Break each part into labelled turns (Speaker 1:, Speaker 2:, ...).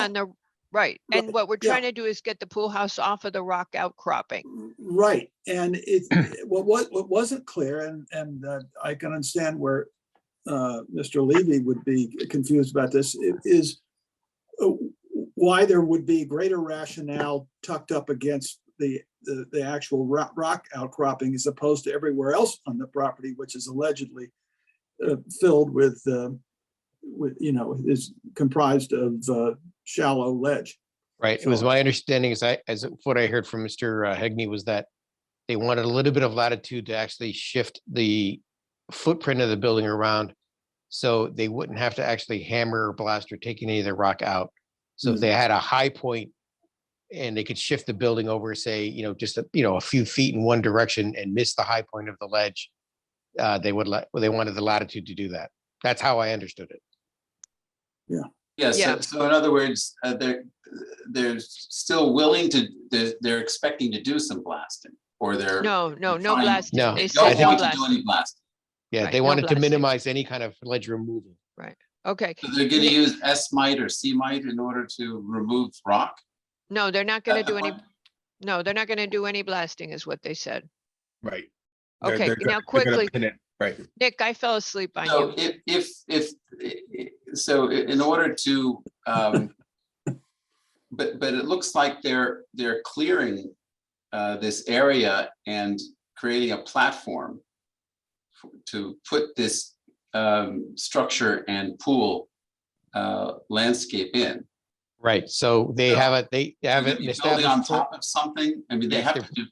Speaker 1: on the, right, and
Speaker 2: Right,
Speaker 1: what we're
Speaker 2: yeah.
Speaker 1: trying to do is get the pool house off of the rock outcropping.
Speaker 2: Right, and it, what, what, what wasn't clear, and, and uh, I can understand where uh, Mr. Levy would be confused about this, i- is uh, why there would be greater rationale tucked up against the, the, the actual rock, rock outcropping as opposed to everywhere else on the property, which is allegedly uh, filled with, uh, with, you know, is comprised of uh, shallow ledge.
Speaker 3: Right. It was
Speaker 2: So-
Speaker 3: my understanding as I, as what I heard from Mr. Hegney was that they wanted a little bit of latitude to actually shift the footprint of the building around. So they wouldn't have to actually hammer or blast or take any of the rock out. So if
Speaker 2: Mm.
Speaker 3: they had a high point and they could shift the building over, say, you know, just, a- you know, a few feet in one direction and miss the high point of the ledge, uh, they would let, well, they wanted the latitude to do that. That's how I understood it.
Speaker 4: Yes,
Speaker 1: Yeah.
Speaker 4: so in other words, uh, they're, they're still willing to, they're, they're expecting to do some blasting or they're.
Speaker 1: No, no, no
Speaker 4: fine.
Speaker 1: blasting.
Speaker 3: No,
Speaker 1: They
Speaker 4: They
Speaker 1: said
Speaker 4: don't
Speaker 1: no
Speaker 4: want to do
Speaker 1: blasting.
Speaker 4: any blasting.
Speaker 3: Yeah,
Speaker 1: Right,
Speaker 3: they
Speaker 1: no
Speaker 3: wanted to
Speaker 1: blasting.
Speaker 3: minimize any kind of ledge removal.
Speaker 1: Okay,
Speaker 4: So they're gonna
Speaker 1: Yeah.
Speaker 4: use S mite or C mite in order to remove rock? Uh,
Speaker 1: no, they're not gonna
Speaker 4: That's the
Speaker 1: do any,
Speaker 4: point.
Speaker 1: no, they're not gonna do any blasting is what they said.
Speaker 5: Right. They're-
Speaker 1: Okay,
Speaker 5: they're go-
Speaker 1: now
Speaker 5: they're gonna
Speaker 1: quickly,
Speaker 5: pin it, Right.
Speaker 1: Nick, I fell asleep on
Speaker 4: So
Speaker 1: you.
Speaker 4: if, if, if, i- i- so i- in order to, um, but, but it looks like they're, they're clearing, uh, this area and creating a platform f- to put this, um, structure and pool, uh, landscape in.
Speaker 3: Right, so they
Speaker 4: So-
Speaker 3: have it, they have
Speaker 4: They're
Speaker 3: it
Speaker 4: gonna be Building on
Speaker 3: established, for-
Speaker 4: top of something, I mean, they
Speaker 3: Yes,
Speaker 4: have
Speaker 3: they're-
Speaker 4: to do,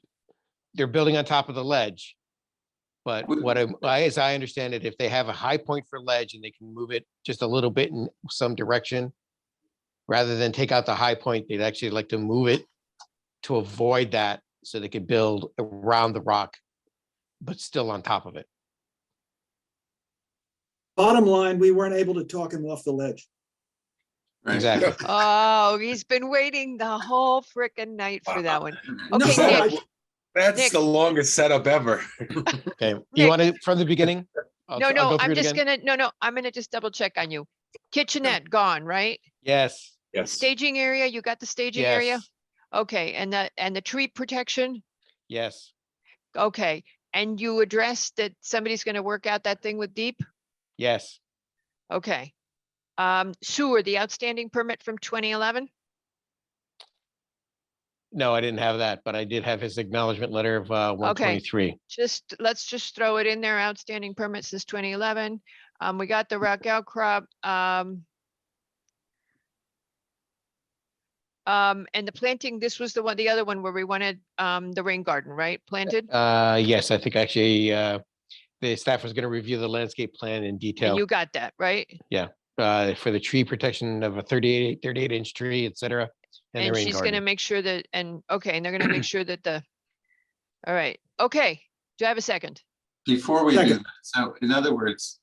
Speaker 3: they're building on top of the ledge. But
Speaker 4: Would-
Speaker 3: what I'm- I, as I understand it, if they have a high point for ledge and they can move it just a little bit in some direction, rather than take out the high point, they'd actually like to move it to avoid that, so they could build around the rock, but still on top of it.
Speaker 2: Bottom line, we weren't able to talk him off the ledge.
Speaker 4: right?
Speaker 3: Exactly.
Speaker 1: Oh, he's been waiting the whole frickin' night for that one.
Speaker 2: No,
Speaker 1: Okay,
Speaker 2: I-
Speaker 1: Nick. Nick.
Speaker 5: That's the longest setup ever.
Speaker 3: Okay,
Speaker 1: Mm, Nick.
Speaker 3: you want to, from the beginning? I'll-
Speaker 1: No,
Speaker 3: I'll
Speaker 1: no,
Speaker 3: go through
Speaker 1: I'm
Speaker 3: it
Speaker 1: just
Speaker 3: again?
Speaker 1: gonna, no, no, I'm gonna just double check on you. Kitchenette gone, right?
Speaker 3: Yes.
Speaker 5: Yes.
Speaker 1: Staging area, you got the staging area?
Speaker 3: Yes,
Speaker 1: Okay, and the, and the tree protection?
Speaker 3: yes,
Speaker 1: Okay, and you addressed that somebody's gonna work out that thing with Deep?
Speaker 3: yes,
Speaker 1: Okay. Um, sewer, the outstanding permit from twenty eleven?
Speaker 3: no, I didn't have that, but I did have his acknowledgement letter of uh, one twenty-three.
Speaker 1: Just, let's just throw it in there, outstanding permit since twenty eleven. Um, we got the rock outcrop, um. Um, and the planting, this was the one, the other one where we wanted, um, the rain garden, right? Planted?
Speaker 3: Uh, yes, I think actually, uh, the staff was gonna review the landscape plan in
Speaker 1: And
Speaker 3: detail,
Speaker 1: you got that, right?
Speaker 3: uh, for the tree protection of a 38 38 inch tree, et cetera. And the
Speaker 1: And
Speaker 3: rain
Speaker 1: she's gonna
Speaker 3: garden.
Speaker 1: make sure that, and, okay, and they're gonna make sure that the, all right, okay, do I have a second?
Speaker 4: Before we do,
Speaker 2: Second.
Speaker 4: that, so in other words,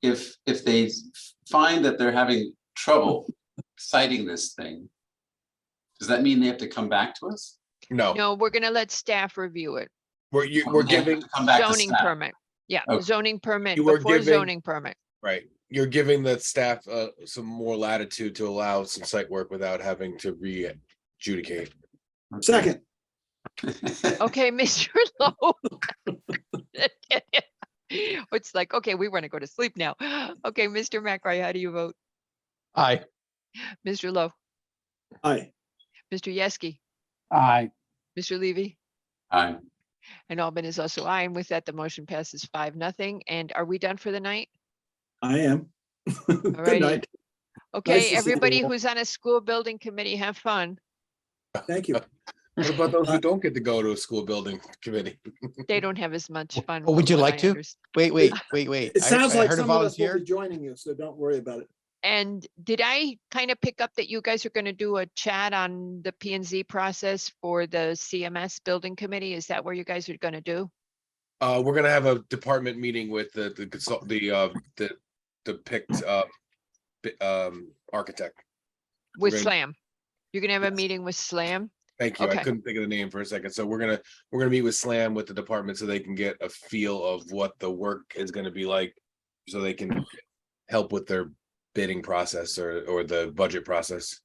Speaker 4: if, if they s- find that they're having trouble citing this thing, does that mean they have to come back to us?
Speaker 5: No,
Speaker 1: No, Oh. we're gonna let staff review it,
Speaker 5: we're, you,
Speaker 4: Or
Speaker 5: we're
Speaker 4: they have
Speaker 5: giving,
Speaker 4: to Come back to
Speaker 1: zoning
Speaker 4: staff?
Speaker 1: permit, yeah,
Speaker 4: Okay.
Speaker 1: zoning permit,
Speaker 5: You were
Speaker 1: before
Speaker 5: giving-
Speaker 1: zoning permit.
Speaker 5: right, you're giving the staff, uh, some more latitude to allow some site work without having to re-adjudicate.
Speaker 2: Second,
Speaker 1: Okay, Mr. Lowe. It's like, okay, we wanna go to sleep now. Okay, Mr. McRae, how do you vote?
Speaker 3: Aye.
Speaker 1: Mr. Lowe,
Speaker 2: aye.
Speaker 1: Mr. Yeski,
Speaker 3: Aye.
Speaker 1: Mr. Levy,
Speaker 4: Aye.
Speaker 1: and Albin is also aye, and with that, the motion passes five, nothing, and are we done for the night?
Speaker 2: I am.
Speaker 1: Alrighty.
Speaker 2: Good night. to
Speaker 1: Okay,
Speaker 2: see
Speaker 1: everybody
Speaker 2: everyone.
Speaker 1: who's on a school building committee, have fun.
Speaker 2: Thank you.
Speaker 5: What about those who don't get to go to a school building committee?
Speaker 1: They don't have as much fun.
Speaker 3: Oh, Mm-hmm. would
Speaker 1: from what
Speaker 3: you like
Speaker 1: I
Speaker 3: to?
Speaker 1: understand.
Speaker 3: Wait, wait, wait, wait.
Speaker 2: It
Speaker 3: I-
Speaker 2: sounds
Speaker 3: I
Speaker 2: like
Speaker 3: heard a
Speaker 2: some of us will be
Speaker 3: volunteer.
Speaker 2: joining you, so don't worry about it.
Speaker 1: And did I kind of pick up that you guys are going to do a chat on the P and Z process for the CMS building committee? Is that where you guys are going to do?
Speaker 5: Uh, we're gonna have a department meeting with the, the consult, the, uh, the, the picked, uh, bi- um, architect.
Speaker 1: With
Speaker 5: gonna-
Speaker 1: SLAM? You're going to have a
Speaker 5: Yes.
Speaker 1: meeting with SLAM?
Speaker 5: Thank you. I
Speaker 1: Okay.
Speaker 5: couldn't think of the name for a second. So we're gonna, we're gonna meet with SLAM with the department so they can get a feel of what the work is gonna be like. So they can help with their bidding process or, or the budget process.